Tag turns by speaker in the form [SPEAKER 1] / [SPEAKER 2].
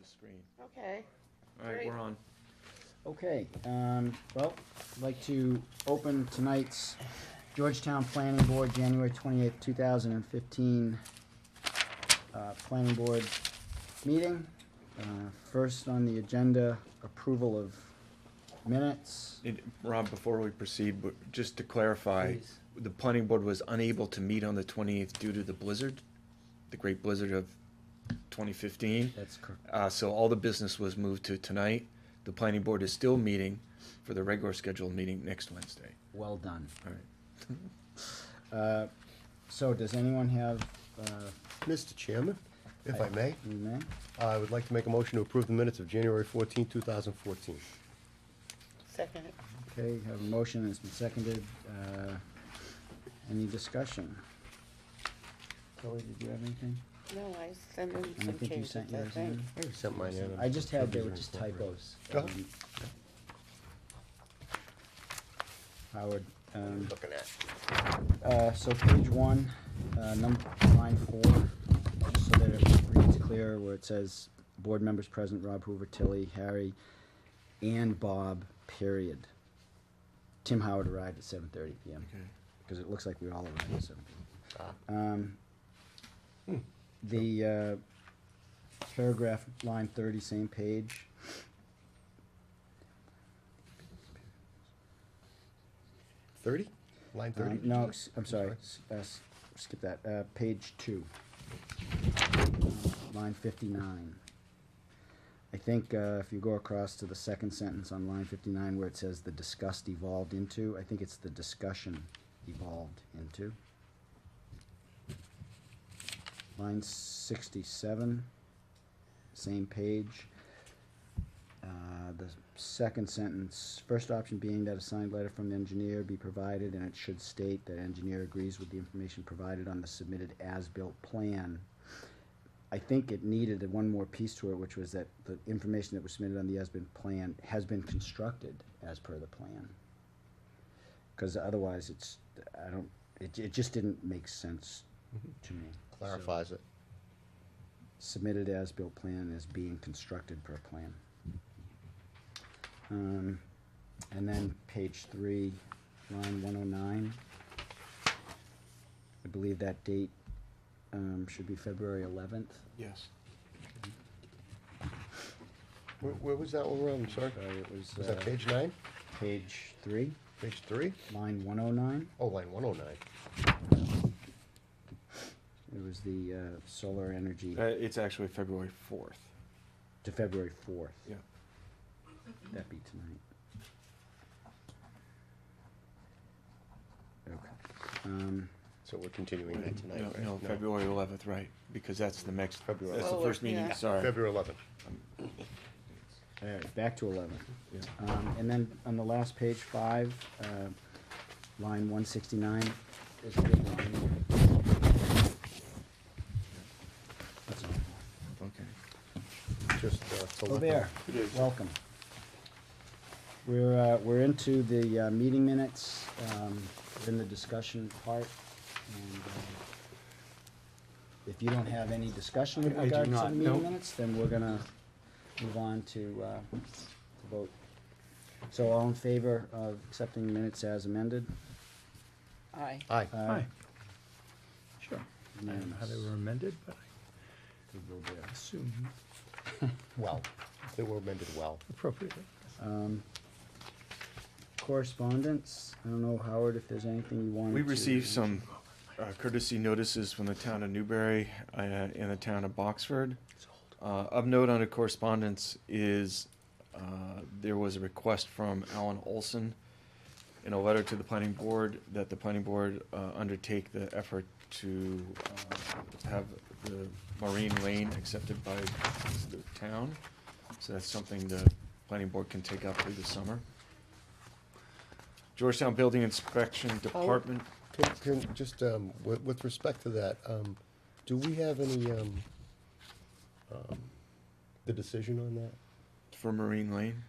[SPEAKER 1] the screen.
[SPEAKER 2] Okay.
[SPEAKER 1] All right,
[SPEAKER 2] Great.
[SPEAKER 1] we're on.
[SPEAKER 3] Okay, um, well, I'd like to open tonight's Georgetown Planning Board, January twenty-eighth, two thousand and fifteen, uh, Planning Board meeting. Uh, first on the agenda, approval of minutes.
[SPEAKER 1] It- Rob, before we proceed, w- just to clarify,
[SPEAKER 3] Please.
[SPEAKER 1] the planning board was unable to meet on the twenty-eighth due to the blizzard, the great blizzard of twenty fifteen.
[SPEAKER 3] That's correct.
[SPEAKER 1] Uh, so all the business was moved to tonight. The planning board is still meeting for the regular scheduled meeting next Wednesday.
[SPEAKER 3] Well done.
[SPEAKER 1] All right.
[SPEAKER 3] Uh, so does anyone have, uh,
[SPEAKER 4] Mr. Chairman, if I may,
[SPEAKER 3] any name?
[SPEAKER 4] I would like to make a motion to approve the minutes of January 14, 2014.
[SPEAKER 2] Second.
[SPEAKER 3] Okay, have a motion, it's been seconded. Uh, any discussion? Kelly, did you have anything?
[SPEAKER 2] No, I sent in
[SPEAKER 3] And I
[SPEAKER 2] some
[SPEAKER 3] think you
[SPEAKER 2] changes, I
[SPEAKER 3] sent yours
[SPEAKER 2] think.
[SPEAKER 3] in.
[SPEAKER 4] I already sent mine in.
[SPEAKER 3] I just had, they were
[SPEAKER 4] These are
[SPEAKER 3] just
[SPEAKER 4] incorporated.
[SPEAKER 3] typos.
[SPEAKER 4] Go
[SPEAKER 3] Um,
[SPEAKER 4] ahead.
[SPEAKER 3] Howard, um,
[SPEAKER 4] Looking at.
[SPEAKER 3] uh, so page one, uh, number, line four, just so that it reads clear, where it says, board members present, Rob Hoover, Tilly, Harry, and Bob, period. Tim Howard arrived at seven thirty PM, because it looks like we all arrived at seven thirty.
[SPEAKER 4] Ah.
[SPEAKER 3] Um, The uh, paragraph, line thirty, same page.
[SPEAKER 4] Thirty?
[SPEAKER 3] Um,
[SPEAKER 4] Line thirty?
[SPEAKER 3] No, s- I'm sorry, s- uh, s- skip that, uh, page two. Uh, Line fifty-nine. I think, uh, if you go across to the second sentence on line fifty-nine where it says the disgust evolved into, I think it's the discussion evolved into. Line sixty-seven, same page. Uh, the second sentence, first option being that a signed letter from the engineer be provided, and it should state that engineer agrees with the information provided on the submitted as-built plan. I think it needed one more piece to it, which was that the information that was submitted on the as-built plan has been constructed as per the plan. Cause otherwise, it's, I don't, it, it just didn't make sense to me. So,
[SPEAKER 4] Clarifies it.
[SPEAKER 3] Submitted as-built plan is being constructed per plan. Um, and then page three, line one oh nine. I believe that date, um, should be February eleventh.
[SPEAKER 1] Yes.
[SPEAKER 4] Where, where was that one, Rob? I'm sorry.
[SPEAKER 3] So it was,
[SPEAKER 4] Was
[SPEAKER 3] uh,
[SPEAKER 4] that page nine?
[SPEAKER 3] page three,
[SPEAKER 4] Page three?
[SPEAKER 3] line one oh nine.
[SPEAKER 4] Oh, line one oh nine.
[SPEAKER 3] It was the, uh, solar energy
[SPEAKER 1] Uh, it's actually February fourth.
[SPEAKER 3] to February fourth.
[SPEAKER 1] Yeah.
[SPEAKER 3] That'd be tonight. Okay, um,
[SPEAKER 4] So we're continuing that tonight,
[SPEAKER 1] No,
[SPEAKER 4] right?
[SPEAKER 1] no, February eleventh, right, because that's the next,
[SPEAKER 4] February
[SPEAKER 1] that's the
[SPEAKER 2] Oh,
[SPEAKER 1] first meeting,
[SPEAKER 2] yeah.
[SPEAKER 1] sorry.
[SPEAKER 4] February eleventh.
[SPEAKER 3] all right, back to eleven.
[SPEAKER 1] Yeah.
[SPEAKER 3] Um, and then on the last page, five, uh, line one sixty-nine is a good line. That's all.
[SPEAKER 1] Okay.
[SPEAKER 4] Just, uh, to
[SPEAKER 3] Oh,
[SPEAKER 4] let
[SPEAKER 3] there,
[SPEAKER 4] them-
[SPEAKER 3] welcome. We're, uh, we're into the, uh, meeting minutes, um, in the discussion part, and, uh, if you don't have any discussion with
[SPEAKER 5] I- I do
[SPEAKER 3] regards to the
[SPEAKER 5] not, no.
[SPEAKER 3] meeting minutes, then we're gonna move on to, uh, to vote. So all in favor of accepting minutes as amended?
[SPEAKER 2] Aye.
[SPEAKER 4] Aye.
[SPEAKER 3] Uh,
[SPEAKER 5] Hi. Sure. I don't know how
[SPEAKER 3] unanimous.
[SPEAKER 5] they were amended, but
[SPEAKER 3] Good will
[SPEAKER 5] I
[SPEAKER 3] bear.
[SPEAKER 5] assume
[SPEAKER 4] Well, they were amended well.
[SPEAKER 5] appropriately.
[SPEAKER 3] Um, correspondence, I don't know, Howard, if there's anything you wanted
[SPEAKER 1] We
[SPEAKER 3] to-
[SPEAKER 1] received some uh, courtesy notices from the town of Newbury uh, and the town of Boxford. Uh, Of note under correspondence is, uh, there was a request from Alan Olson in a letter to the planning board, that the planning board uh, undertake the effort to uh, have the Marine Lane accepted by the town. So that's something the planning board can take up through the summer. Georgetown Building Inspection Department
[SPEAKER 4] Can, can, just, um, with, with respect to that, um, do we have any, um, um, the decision on that?
[SPEAKER 1] for Marine Lane.